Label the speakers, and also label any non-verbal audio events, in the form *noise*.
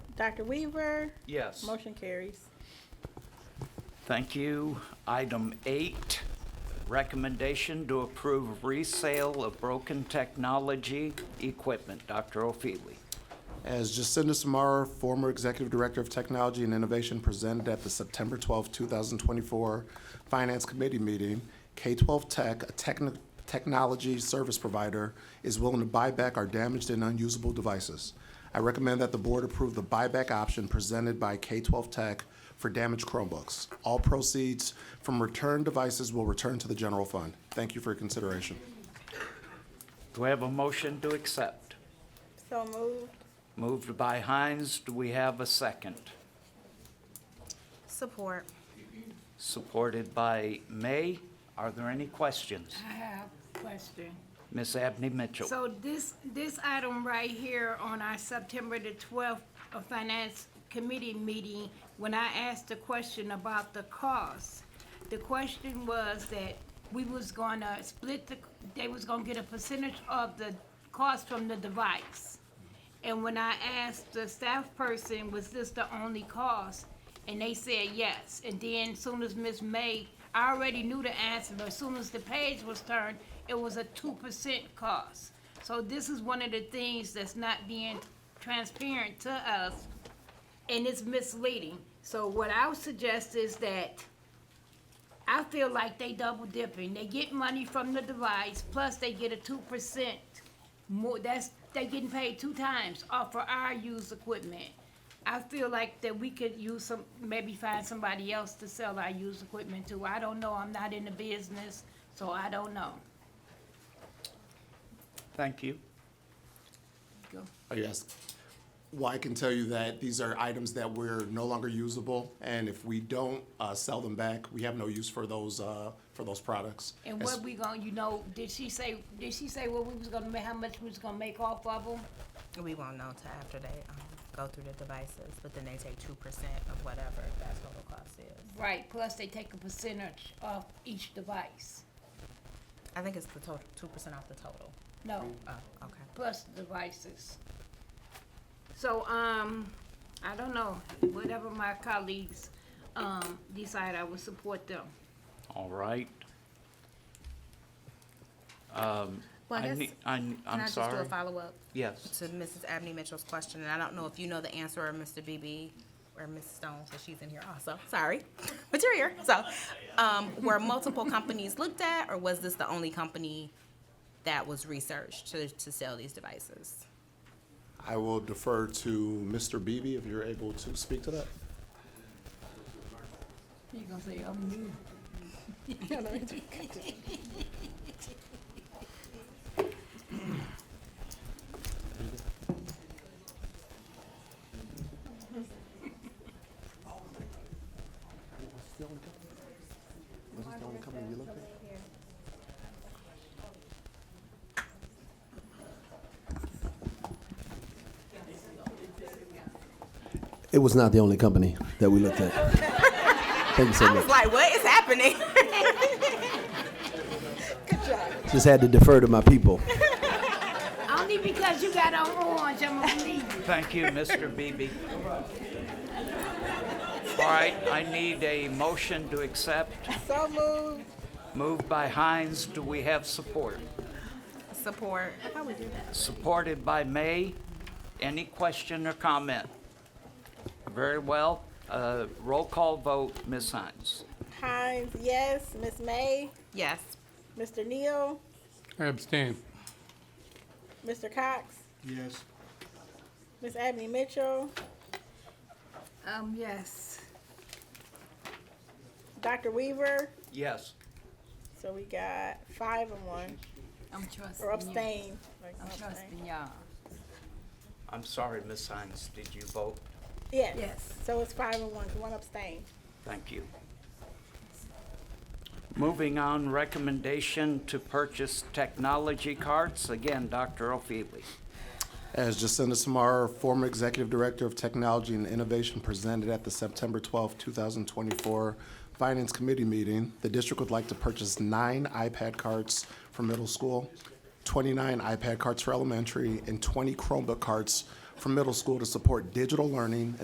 Speaker 1: Dr. Weaver,
Speaker 2: Yes.
Speaker 1: motion carries.
Speaker 2: Thank you. Item eight, recommendation to approve resale of broken technology equipment. Dr. O'Feely.
Speaker 3: As Jacinda Samara, former Executive Director of Technology and Innovation, presented at the September 12, 2024 Finance Committee meeting, K-12 Tech, a techni- technology service provider, is willing to buy back our damaged and unusable devices. I recommend that the board approve the buyback option presented by K-12 Tech for damaged Chromebooks. All proceeds from returned devices will return to the general fund. Thank you for your consideration.
Speaker 2: Do we have a motion to accept?
Speaker 1: So moved.
Speaker 2: Moved by Hines. Do we have a second?
Speaker 4: Support.
Speaker 2: Supported by May. Are there any questions?
Speaker 5: I have a question.
Speaker 2: Ms. Abney Mitchell.
Speaker 5: So this, this item right here on our September the twelfth Finance Committee meeting, when I asked the question about the cost, the question was that we was gonna split the, they was gonna get a percentage of the cost from the device. And when I asked the staff person, was this the only cost? And they said yes. And then soon as Miss May, I already knew the answer, but as soon as the page was turned, it was a two percent cost. So this is one of the things that's not being transparent to us, and it's misleading. So what I would suggest is that I feel like they double dipping. They get money from the device, plus they get a two percent more. That's they getting paid two times off for our used equipment. I feel like that we could use some, maybe find somebody else to sell our used equipment to. I don't know. I'm not in the business, so I don't know.
Speaker 2: Thank you.
Speaker 5: Go.
Speaker 3: Yes. Well, I can tell you that these are items that we're no longer usable, and if we don't uh, sell them back, we have no use for those, uh, for those products.
Speaker 5: And
Speaker 3: As-
Speaker 5: what we gonna, you know, did she say? Did she say what we was gonna make? How much we was gonna make off of them?
Speaker 4: We won't know till after they um, go through the devices, but then they take two percent of whatever that total cost is.
Speaker 5: Right. Plus they take a percentage off each device.
Speaker 4: I think it's the total, two percent off the total.
Speaker 5: No.
Speaker 4: Oh, okay.
Speaker 5: plus devices. So, um, I don't know, whatever my colleagues, um, decide, I will support them.
Speaker 2: All right.
Speaker 4: Well,
Speaker 2: I need- I, am
Speaker 4: Can I just do a
Speaker 2: sorry.
Speaker 4: follow-up
Speaker 2: Yes.
Speaker 4: to Mrs. Abney Mitchell's question? And I don't know if you know the answer or Mr. BB or Ms. Stone, because she's in here also. Sorry, *laughs* but you're here. So, um, were multiple companies looked at, or was this the only company that was researched to, to sell these devices?
Speaker 3: I will defer to Mr. Beebe if you're able to speak to that.
Speaker 5: You gonna say, I'm new.
Speaker 6: It was not the only company that we looked at. Thank you so
Speaker 4: I was
Speaker 6: much.
Speaker 4: like, what is happening? *laughs*
Speaker 6: Just had to defer to my people.
Speaker 5: Only because you got on orange, I'm gonna leave you.
Speaker 2: Thank you, Mr. Beebe. All right, I need a motion to accept.
Speaker 1: So moved.
Speaker 2: Moved by Hines, do we have support?
Speaker 4: Support.
Speaker 2: Supported by May. Any question or comment? Very well. Uh, Roll call vote, Ms. Hines.
Speaker 1: Hines, yes. Miss May,
Speaker 4: Yes.
Speaker 1: Mr. Neal,
Speaker 7: I abstain.
Speaker 1: Mr. Cox,
Speaker 7: Yes.
Speaker 1: Miss Abney Mitchell,
Speaker 5: Um, yes.
Speaker 1: Dr. Weaver.
Speaker 2: Yes.
Speaker 1: So we got five and one,
Speaker 5: I'm trusting
Speaker 1: or
Speaker 5: you.
Speaker 1: abstain. Like,
Speaker 5: I'm
Speaker 1: abstain.
Speaker 5: trusting y'all.
Speaker 2: I'm sorry, Ms. Hines, did you vote?
Speaker 1: Yes.
Speaker 5: Yes.
Speaker 1: So it's five and one, 'cause one abstain.
Speaker 2: Thank you. Moving on, recommendation to purchase technology carts. Again, Dr. O'Feely.
Speaker 3: As Jacinda Samara, former Executive Director of Technology and Innovation, presented at the September 12, 2024 Finance Committee meeting, the district would like to purchase nine iPad carts for middle school, 29 iPad carts for elementary, and 20 Chromebook carts from middle school to support digital learning